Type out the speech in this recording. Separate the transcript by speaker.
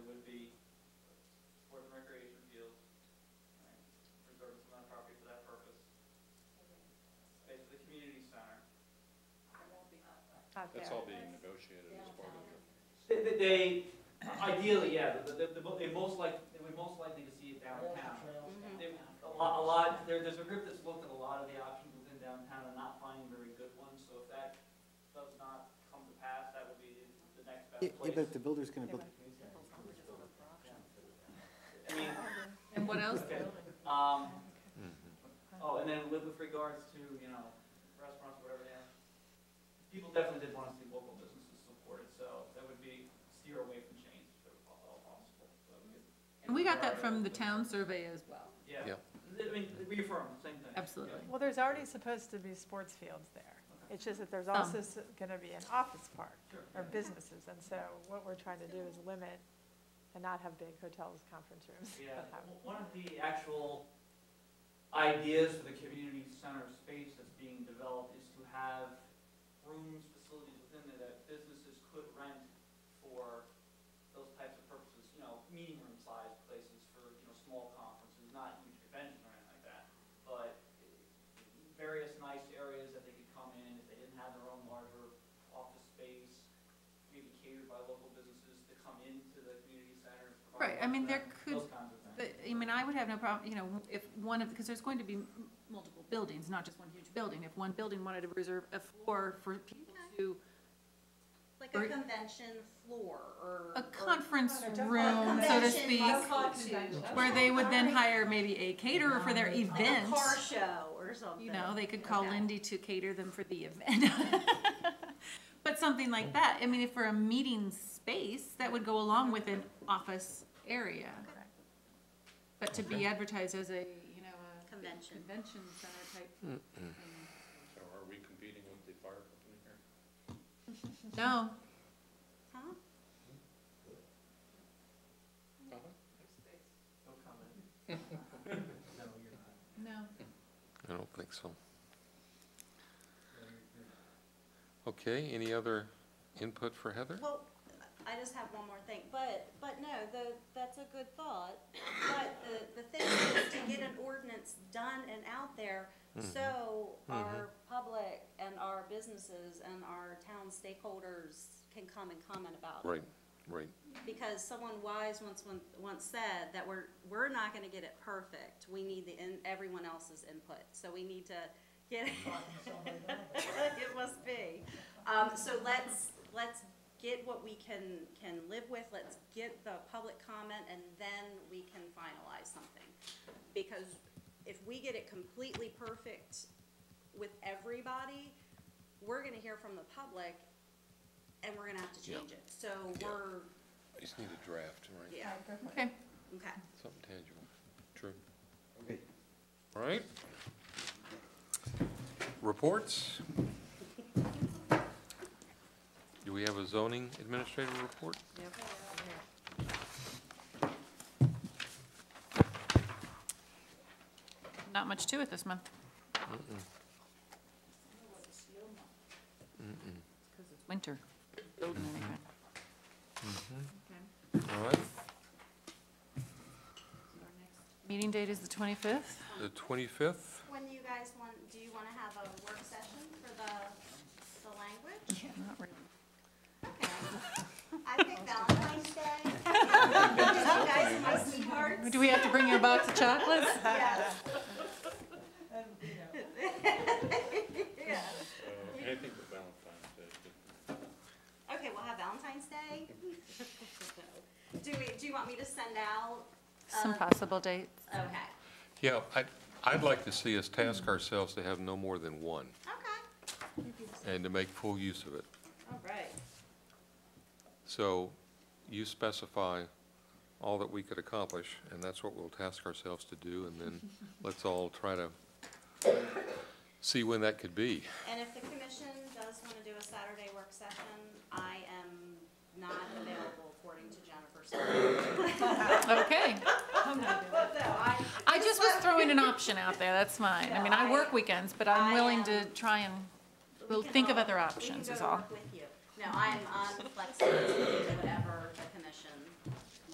Speaker 1: out there.
Speaker 2: That's all being negotiated as part of the,
Speaker 3: They- They, they- ideally, yeah, the, the, the, mo- they most like, they would most likely to see it downtown.
Speaker 1: Mhm.
Speaker 3: They- A lot, a lot, there, there's a group that's looked at a lot of the options within downtown and not finding very good ones, so if that does not come to pass, that would be the next best
Speaker 4: Yeah, yeah,
Speaker 3: place.
Speaker 4: but if the builder's gonna build,
Speaker 3: I mean,
Speaker 5: And what else?
Speaker 3: Okay. Um, oh, and then with, with regards to, you know, restaurants, whatever, yeah, people definitely did want to see local businesses supported, so that would be steer away from chains if at all possible. so we could-
Speaker 5: And we got that from the town survey as well.
Speaker 3: Yeah,
Speaker 2: Yeah.
Speaker 3: I mean, reaffirm, same thing.
Speaker 5: Absolutely.
Speaker 3: Yeah.
Speaker 1: Well, there's already supposed to be sports fields there. It's just that there's
Speaker 5: Some.
Speaker 1: also s- gonna be an office park
Speaker 3: Sure.
Speaker 1: or businesses, and so what we're trying to do is limit and not have big hotels, conference rooms.
Speaker 3: Yeah,
Speaker 1: but have-
Speaker 3: w- one of the actual ideas for the community center space that's being developed is to have rooms, facilities within there that businesses could rent for those types of purposes, you know, meeting room sized places for, you know, small conferences, not huge conventions or anything like that. But eh, various nice areas that they could come in, if they didn't have their own larger office space, maybe catered by local businesses to come into the community center. and provide
Speaker 5: Right, I mean, there
Speaker 3: them,
Speaker 5: could-
Speaker 3: Those kinds of things.
Speaker 5: But, I mean, I would have no problem, you know, if one of, because there's going to be m- multiple buildings, not just one huge building. If one building wanted to reserve a floor for people to,
Speaker 6: Like a
Speaker 5: Or-
Speaker 6: convention floor or.
Speaker 5: a
Speaker 6: or-
Speaker 5: conference room, so to
Speaker 6: Convention,
Speaker 5: speak,
Speaker 6: like convention.
Speaker 5: where they would then hire maybe a caterer for their
Speaker 6: Like a
Speaker 5: event.
Speaker 6: car show or something.
Speaker 5: You know, they could call
Speaker 6: Okay.
Speaker 5: Lindy to cater them for the event. But something like that, I mean, if for a meeting space, that would go along with an office area. But to be advertised as a, you know, a
Speaker 6: Convention.
Speaker 5: convention center type. thing.
Speaker 2: so are we competing with the fire company here?
Speaker 5: No,
Speaker 6: Huh?
Speaker 3: No comment. No, you're not.
Speaker 5: no.
Speaker 7: I don't think so. Okay, any other input for Heather?
Speaker 6: Well, I just have one more thing, but, but no, though, that's a good thought. But the, the thing is to get an ordinance done and out there so our public and our businesses and our town stakeholders can come and comment about it.
Speaker 7: Right, right.
Speaker 6: because someone wise once, one- once said that we're, we're not gonna get it perfect. We need the, in everyone else's input, so we need to get, it must be. Um, so let's, let's get what we can, can live with, let's get the public comment, and then we can finalize something. Because if we get it completely perfect with everybody, we're gonna hear from the public, and we're gonna have to change it. So
Speaker 7: Yeah.
Speaker 6: we're,
Speaker 7: I just need a draft, right?
Speaker 6: yeah,
Speaker 5: Okay,
Speaker 6: okay.
Speaker 7: Something tangible. True. All right. Reports? Do we have a zoning administrator report?
Speaker 5: not much to it this month. Because it's winter. Building anything.
Speaker 7: All right,
Speaker 5: Meeting date is the twenty-fifth.
Speaker 7: the 25th.
Speaker 6: When do you guys want, do you wanna have a work session for the, the language?
Speaker 5: Yeah, not really.
Speaker 6: I think Valentine's Day. You guys are my sweethearts.
Speaker 5: Do we have to bring you a box of chocolates?
Speaker 6: Yes, yeah.
Speaker 2: Uh, Anything but Valentine's Day, but
Speaker 6: Okay, we'll have Valentine's Day. Do we, do you want me to send out?
Speaker 5: Some
Speaker 6: uh,
Speaker 5: possible dates.
Speaker 6: Okay,
Speaker 7: Yeah, I'd, I'd like to see us task ourselves to have no more than one
Speaker 6: okay,
Speaker 7: and to make full use of it.
Speaker 6: all right.
Speaker 7: So you specify all that we could accomplish, and that's what we'll task ourselves to do, and then let's all try to see when that could be.
Speaker 6: And if the commission does wanna do a Saturday work session, I am not available according to Jennifer. so-
Speaker 5: Okay.
Speaker 6: But no, I,
Speaker 5: I just was throwing an option out there, that's mine. I mean, I work weekends, but I'm willing to try and,
Speaker 6: We
Speaker 5: we'll
Speaker 6: can
Speaker 5: think of
Speaker 6: all-
Speaker 5: other
Speaker 6: we
Speaker 5: options
Speaker 6: can
Speaker 5: is
Speaker 6: go to
Speaker 5: all.
Speaker 6: work with you. No, I'm, I'm flexible, to do whatever